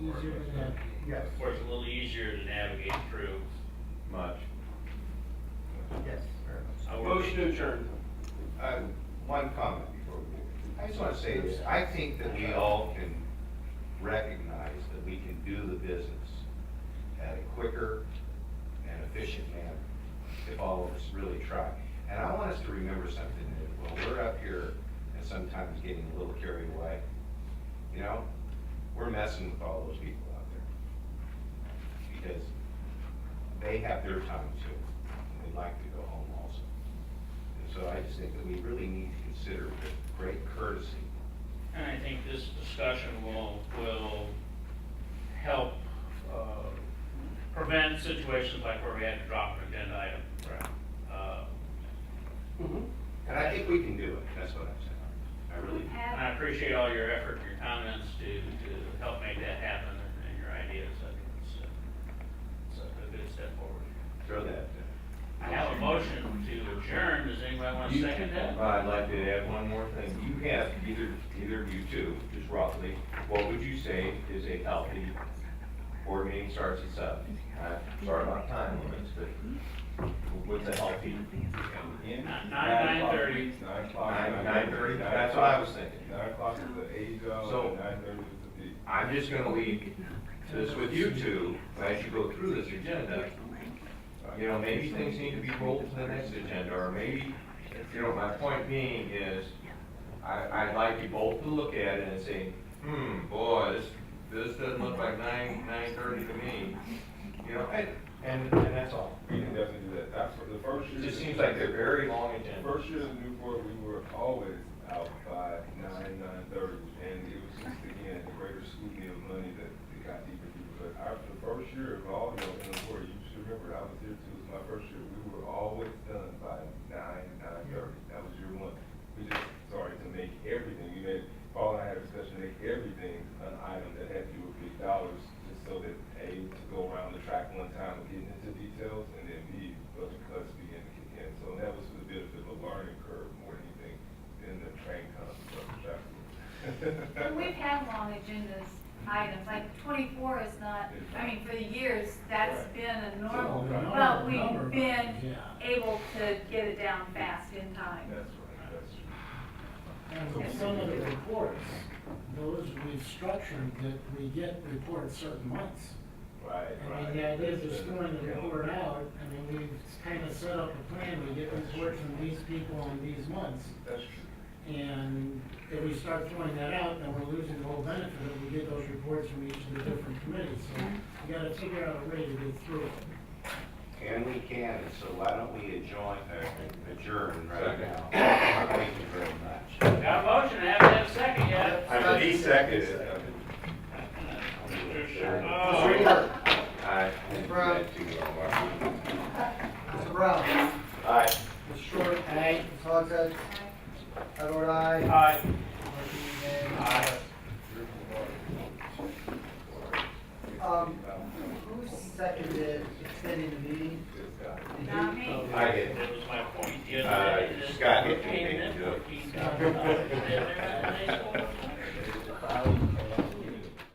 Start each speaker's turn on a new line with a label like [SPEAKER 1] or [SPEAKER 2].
[SPEAKER 1] Yes,
[SPEAKER 2] Of course, a little easier to navigate through.
[SPEAKER 3] Much.
[SPEAKER 1] yes, very much.
[SPEAKER 2] I work-
[SPEAKER 3] Motion adjourned. Uh, one comment before we move. I just wanna say this, I think that we all can recognize that we can do the business at a quicker and efficient manner if all of us really try. And I want us to remember something, that while we're up here and sometimes getting a little carried away, you know, we're messing with all those people out there. Because they have their time too, and they'd like to go home also. And so I just think that we really need to consider with great courtesy.
[SPEAKER 2] And I think this discussion will, will help uh, prevent situations like where we had to drop an agenda item. Uh,
[SPEAKER 3] And I think we can do it, that's what I'm saying. I really, do.
[SPEAKER 2] And I appreciate all your effort and your comments to, to help make that happen and- and your ideas. I think it's, uh, it's a good step forward.
[SPEAKER 3] throw that.
[SPEAKER 2] I have a motion to adjourn. Does anybody want to second that?
[SPEAKER 3] I'd like to add one more thing. You have, either, either of you two, just roughly, what would you say is a healthy board meeting starts at seven? Uh, Sorry about time limits, but what's a healthy?
[SPEAKER 4] In?
[SPEAKER 2] Nine-
[SPEAKER 4] Nine o'clock.
[SPEAKER 2] 9:30.
[SPEAKER 4] Nine o'clock.
[SPEAKER 3] Nine, nine thirty, that's what I was thinking.
[SPEAKER 4] Nine o'clock is the age
[SPEAKER 3] So-
[SPEAKER 4] of, nine thirty is the peak.
[SPEAKER 3] I'm just gonna leave this with you two, as you go through this agenda. You know, maybe things need to be rolled to the next agenda, or maybe, you know, my point being is, I, I'd like you both to look at it and say, hmm, boy, this, this doesn't look like nine, nine thirty to me. You know, and, and, and that's all.
[SPEAKER 4] We can definitely do that. That's what- the first
[SPEAKER 3] It
[SPEAKER 4] year.
[SPEAKER 3] just seems like they're very long
[SPEAKER 4] the
[SPEAKER 3] agendas.
[SPEAKER 4] First year in Newport, we were always out by nine, nine thirty, and it was just again, the greater scrutiny of money that it got deeper, and deeper. But our, the first year of all, you know, in Newport, you should remember, I was here too, it was my first year, we were always done by nine, nine thirty. That was year one. We just started to make everything, we made, Paul and I had a discussion, make everything an item that had to do with big dollars, just so that A, to go around the track one time and get into details, and then B, budget cuts began to kick in. So that was a bit of a learning curve more than anything, than the train concept of the track.
[SPEAKER 5] And we've had long agendas, items, like twenty-four is not, I mean, for the years, that's
[SPEAKER 4] Right.
[SPEAKER 5] been a normal,
[SPEAKER 4] Right.
[SPEAKER 5] but we've been able to get it down fast in time.
[SPEAKER 4] That's right, that's true.
[SPEAKER 6] And with some of the reports, those we've structured that we get reports certain months.
[SPEAKER 4] Right,
[SPEAKER 6] I
[SPEAKER 4] right.
[SPEAKER 6] mean, the idea is just throwing the report out, I mean, we've kind of set up a plan, we get reports from these people in these months.
[SPEAKER 4] That's true.
[SPEAKER 6] And if we start throwing that out, then we're losing the whole benefit of we get those reports from each of the different committees. So we gotta figure out a way to get through it.
[SPEAKER 3] And we can, and so why don't we adjourn, uh, adjourn right now? Thank you very much.
[SPEAKER 2] Got a motion, I haven't had a second yet.
[SPEAKER 3] I'm the second.
[SPEAKER 2] Oh.
[SPEAKER 3] Aye.
[SPEAKER 1] Brown. Mr. Brown,
[SPEAKER 3] Aye.
[SPEAKER 1] Mr. Short. Aye. Ms. Hogshead. I vote aye.
[SPEAKER 2] Aye.
[SPEAKER 1] Motion
[SPEAKER 2] Aye.
[SPEAKER 1] unanimous. Um, who seconded extending the meeting? Did you?
[SPEAKER 5] Not me.
[SPEAKER 1] Okay.
[SPEAKER 3] I did.
[SPEAKER 2] That was my point. the other
[SPEAKER 3] Uh,
[SPEAKER 2] day, that
[SPEAKER 3] Scott,
[SPEAKER 2] we
[SPEAKER 3] you
[SPEAKER 2] came
[SPEAKER 3] can
[SPEAKER 2] in
[SPEAKER 3] do it.
[SPEAKER 2] $14,000 in there.